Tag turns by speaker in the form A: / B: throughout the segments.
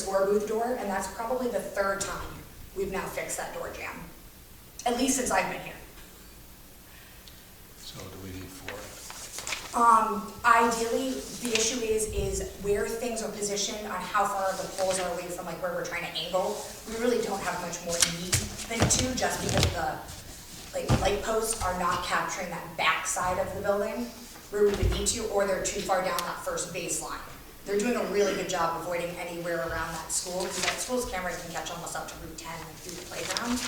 A: door move door, and that's probably the third time we've now fixed that door jam. At least since I've been here.
B: So do we need four?
A: Um, ideally, the issue is, is where things are positioned on how far the poles are away from like where we're trying to angle. We really don't have much more need than two, just because the, like, light posts are not capturing that back side of the building where we would need to, or they're too far down that first baseline. They're doing a really good job avoiding anywhere around that school, because that school's camera can catch almost up to Route ten through the playground.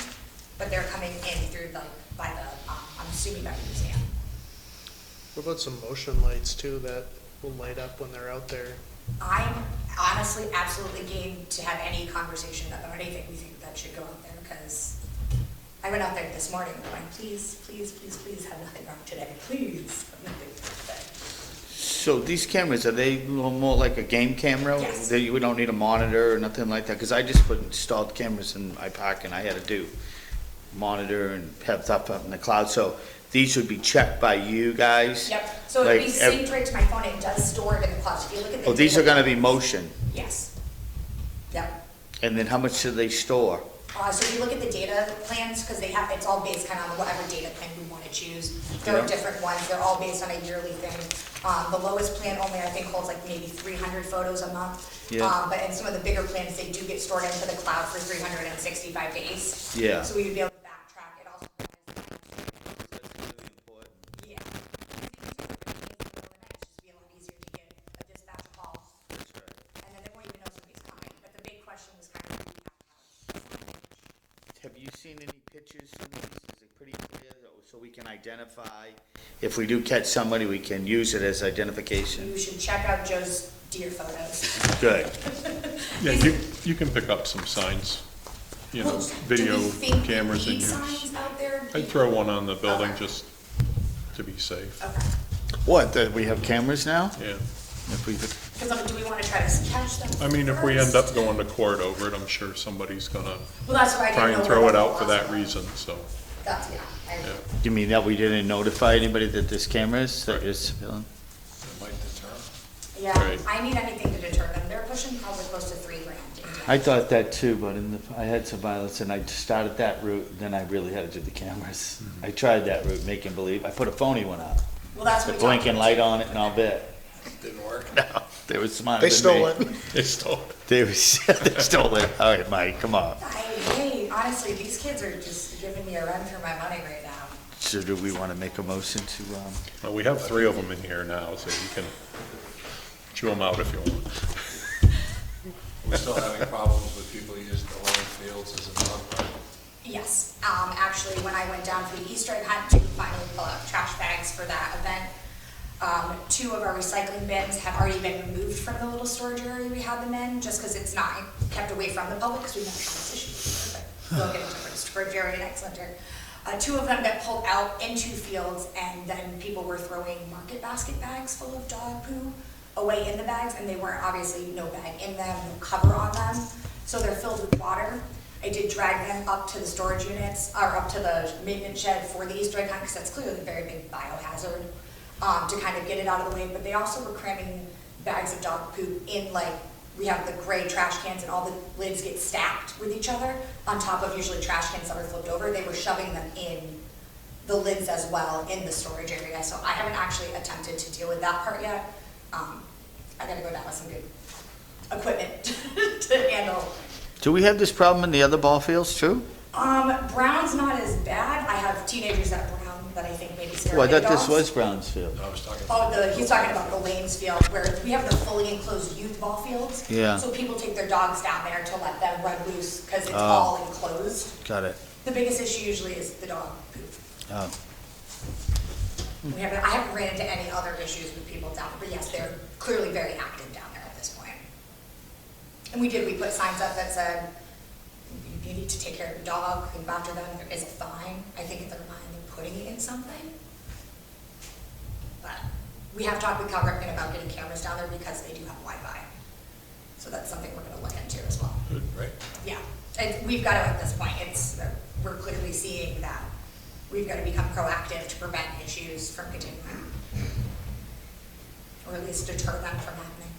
A: But they're coming in through the, by the, um, I'm assuming by the museum.
C: What about some motion lights too that will light up when they're out there?
A: I'm honestly absolutely game to have any conversation about anything we think that should go out there, because I went out there this morning, and I'm like, please, please, please, please have nothing wrong today, please, have nothing wrong today.
D: So these cameras, are they a little more like a game camera?
A: Yes.
D: They- We don't need a monitor or nothing like that? Because I just put installed cameras in my pocket and I had to do monitor and have stuff up in the cloud. So these would be checked by you guys?
A: Yep, so it'd be
D: Like, ev-
A: synced right to my phone, and it does store it in the cloud, if you look at the.
D: Oh, these are gonna be motion.
A: Yes. Yep,
D: And then how much do they store?
A: uh, so if you look at the data plans, because they have, it's all based kind of on whatever data plan we want to choose. There are
D: Yeah.
A: different ones, they're all based on a yearly thing. Um, the lowest plan only, I think, holds like maybe three hundred photos a month.
D: Yeah.
A: Um, but in some of the bigger plans, they do get stored into the cloud for three hundred and sixty-five days.
D: Yeah.
A: So we would be able to backtrack it also. Yeah. Just be a lot easier to get a dispatch call, and then they won't even know somebody's coming, but the big question was kind of.
D: Have you seen any pictures? from these? Is it pretty clear that- so we can identify? If we do catch somebody, we can use it as identification?
A: You should check out Joe's deer photos.
D: Good.
B: Yeah, you, you can pick up some signs, you know, video cameras in
A: and
B: your.
A: Signs out there?
B: I'd throw one on the building
A: Okay.
B: just to be safe,
A: Okay,
D: What, that we have cameras now?
B: yeah.
D: If we-
A: because like, do we want to try to catch them?
B: I mean, if we end
A: first?
B: up going to court over it, I'm sure somebody's gonna
A: Well, that's what I didn't know.
B: try and
A: where
B: throw it
A: the
B: out for
A: laws
B: that
A: were.
B: reason, so,
A: That's, yeah, I
B: yeah.
A: agree.
D: You mean that we didn't notify anybody that this camera is, that
B: Right.
D: is filming?
A: Yeah,
B: Right.
A: I need anything to deter them. They're pushing probably close to three grand. in
D: I thought that too, but in the, I had some violence and I started that route, then I really had to do the cameras. I tried that route, make him believe, I put a phony one up,
A: Well, that's
D: the
A: what we talked
D: blinking light on it and all that. Didn't work. No, they were smarter than me.
B: It's still,
D: They were, they stole it, all right, Mike, come on.
A: I, hey, honestly, these kids are just giving me a run for my money right now.
D: So do we wanna make a motion to, um,
B: well, we have three of them in here now, so you can chew them out if you want.
E: We're still having problems with people using the lawn fields as a dog park.
A: Yes, um, actually, when I went down for the Easter egg hunt to finally pull out trash bags for that event, um, two of our recycling bins have already been removed from the little storage area we had them in, just because it's not kept away from the public, because we don't have this issue. But we'll get into it, storage area next winter. Uh, two of them got pulled out into fields, and then people were throwing market basket bags full of dog poo away in the bags, and they weren't, obviously, no bag in them, no cover on them, so they're filled with water. I did drag them up to the storage units, or up to the maintenance shed for the Easter egg hunt, because that's clearly a very big biohazard, um, to kind of get it out of the way, but they also were cramming bags of dog poop in like, we have the gray trash cans and all the lids get stacked with each other on top of usually trash cans that are flipped over, they were shoving them in the lids as well in the storage area, so I haven't actually attempted to deal with that part yet. Um, I gotta go down with some good equipment to handle
D: do we have this problem in the other ball fields too?
A: um, Brown's not as bad. I have teenagers at Brown that I think maybe scare
D: Well, I thought
A: dogs.
D: this was Brownsfield.
E: I was talking
A: Oh, the, he's talking about the Lanes Field where we have the fully enclosed youth ball fields.
D: Yeah.
A: So people take their dogs down there to let them run loose because it's
D: Ah.
A: all enclosed.
D: Got it,
A: The biggest issue usually is the dog poop.
D: oh.
A: We haven't, I haven't ran into any other issues with people down, but yes, they're clearly very active down there at this point. And we did, we put signs up that said, you need to take care of your dog, and after them, there is a fine. I think in their mind, they're putting it in something. But we have talked with Cal Ripken about getting cameras down there because they do have Wi-Fi. So that's something we're gonna look into as well.
E: right?
A: Yeah, and we've got to at this point, it's, we're clearly seeing that we've got to become proactive to prevent issues from continuing. Or at least deter them from happening.